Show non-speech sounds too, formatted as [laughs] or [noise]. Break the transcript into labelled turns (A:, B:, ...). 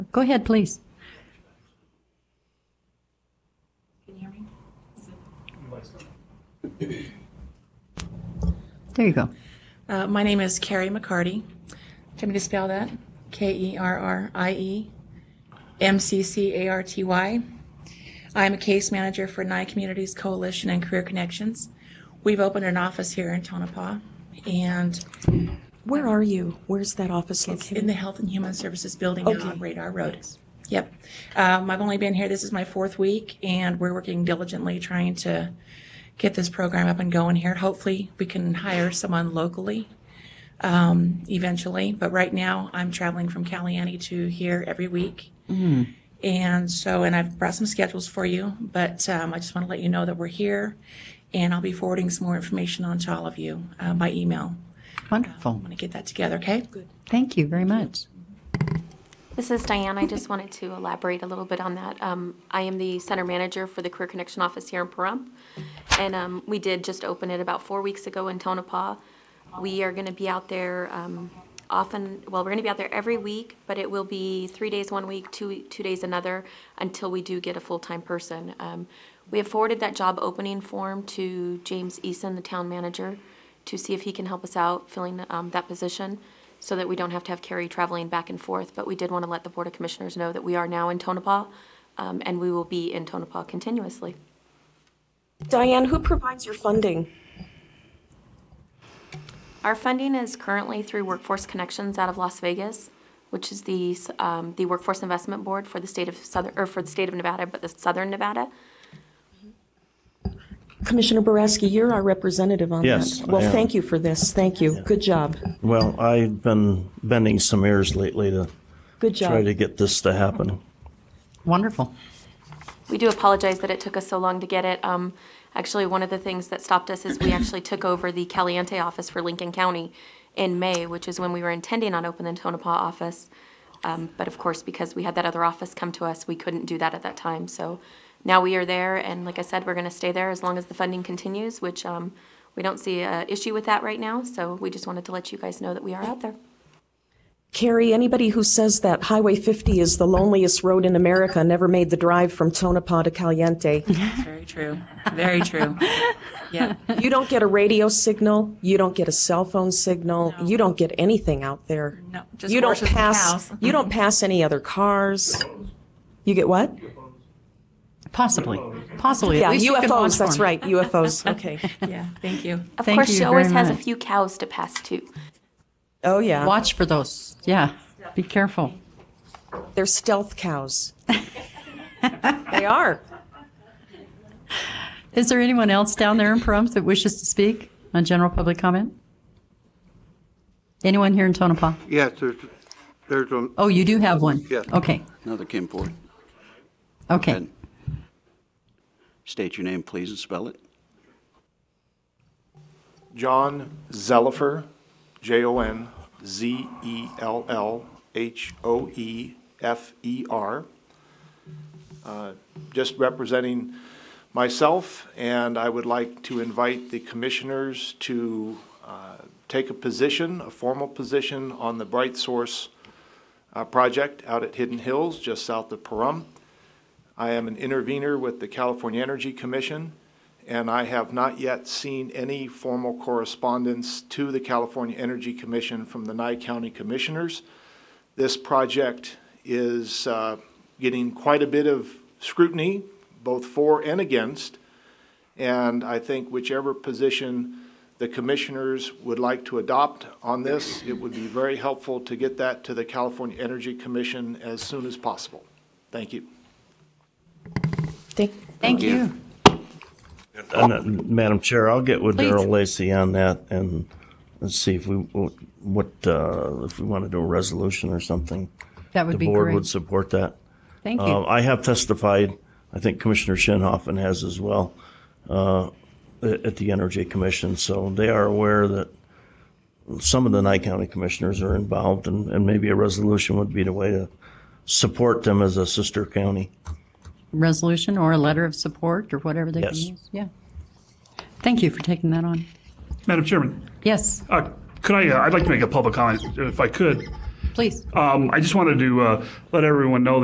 A: Go ahead, please.
B: Can you hear me?
A: There you go.
B: Uh, my name is Carrie McCarty. Tell me to spell that. K E R R I E M C C A R T Y. I'm a case manager for Nye Communities Coalition and Career Connections. We've opened an office here in Tonopah, and
C: Where are you? Where's that office
B: it's in
C: located?
B: the Health and Human Services building down on
C: Okay.
B: Radar Road. Yep. Um, I've only been here, this is my fourth week, and we're working diligently trying to get this program up and going here. Hopefully, we can hire someone locally um, eventually, but right now I'm traveling from Caliente to here every week. And so, and I've brought some schedules for you, but um, I just want to let you know that we're here, and I'll be forwarding some more information on to all of you uh, by email.
A: Wonderful.
B: I'm going to get that together, okay?
A: Thank you very much.
D: This is Diane. I just wanted to elaborate a little bit on that. Um, I am the center manager for the Career Connection Office here in Pahrump. And um, we did just open it about four weeks ago in Tonopah. We are going to be out there um, often, well, we're going to be out there every week, but it will be three days one week, two, two days another, until we do get a full-time person. Um, We have forwarded that job opening form to James Eason, the town manager, to see if he can help us out filling um, that position so that we don't have to have Carrie traveling back and forth. But we did want to let the Board of Commissioners know that we are now in Tonopah, um, and we will be in Tonopah continuously.
C: Diane, who provides your funding?
D: Our funding is currently through Workforce Connections out of Las Vegas, which is the, um, the Workforce Investment Board for the state of Southern, or for the state of Nevada, but the Southern Nevada.
C: Commissioner Boraski, you're our representative on that.
E: Yes, I
C: Well,
E: am.
C: thank you for this. Thank you. Good job.
E: Well, I've been bending some ears lately to
C: Good
E: try to
C: job.
E: get this to happen.
A: Wonderful.
D: We do apologize that it took us so long to get it. Um, actually, one of the things that stopped us is we actually took over the Caliente office for Lincoln County in May, which is when we were intending on opening the Tonopah office. Um, but of course, because we had that other office come to us, we couldn't do that at that time. So now we are there, and like I said, we're going to stay there as long as the funding continues, which um, we don't see an issue with that right now. So we just wanted to let you guys know that we are out there.
C: Carrie, anybody who says that Highway 50 is the loneliest road in America never made the drive from Tonopah to Caliente.
B: Very true. Very true. Yeah.
C: You don't get a radio signal, you don't get a cell phone signal, you don't get anything out there.
B: No, just
C: You don't
B: horses and
C: pass,
B: cows.
C: you don't pass any other cars. You get what?
A: Possibly. Possibly. At
C: Yeah,
A: least you can watch
C: UFOs, that's
A: for me.
C: right, UFOs,
B: [laughs]
C: okay.
B: [laughs] Yeah. Thank you.
D: Of
A: Thank
D: course,
A: you
D: she always
A: very
D: has a
A: much.
D: few cows to pass too.
C: Oh, yeah.
A: Watch for those. Yeah. Be careful.
C: They're stealth cows. They are.
A: Is there anyone else down there in Pahrump that wishes to speak on general public comment? Anyone here in Tonopah?
F: Yes, there's, there's one,
A: Oh, you do have one?
F: Yes.
A: Okay,
G: Another Kim Ford.
A: okay.
G: And state your name, please, and spell it.
H: John Zellifer, J O N Z E L L H O E F E R. Uh, Just representing myself, and I would like to invite the commissioners to uh, take a position, a formal position, on the Bright Source uh, project out at Hidden Hills, just south of Pahrump. I am an intervener with the California Energy Commission, and I have not yet seen any formal correspondence to the California Energy Commission from the Nye County Commissioners. This project is uh, getting quite a bit of scrutiny, both for and against, and I think whichever position the commissioners would like to adopt on this, it would be very helpful to get that to the California Energy Commission as soon as possible. Thank you.
C: Thank,
A: Thank you.
E: And, uh, Madam Chair, I'll get with
A: Please.
E: Daryl Lacey on that and let's see if we, what, uh, if we want to do a resolution or something.
A: That would be
E: The board
A: great.
E: would support that.
A: Thank
E: Uh,
A: you.
E: I have testified, I think Commissioner Shinhoffen has as well, uh, at at the Energy Commission, so they are aware that some of the Nye County Commissioners are involved, and, and maybe a resolution would be the way to support them as a sister county.
A: Resolution or a letter of support or whatever they can
E: Yes.
A: use. Yeah. Thank you for taking that on.
I: Madam Chairman,
A: Yes,
I: uh, could I, uh, I'd like to make a public comment if I could.
J: Please.
H: Um, I just wanted to uh, let everyone know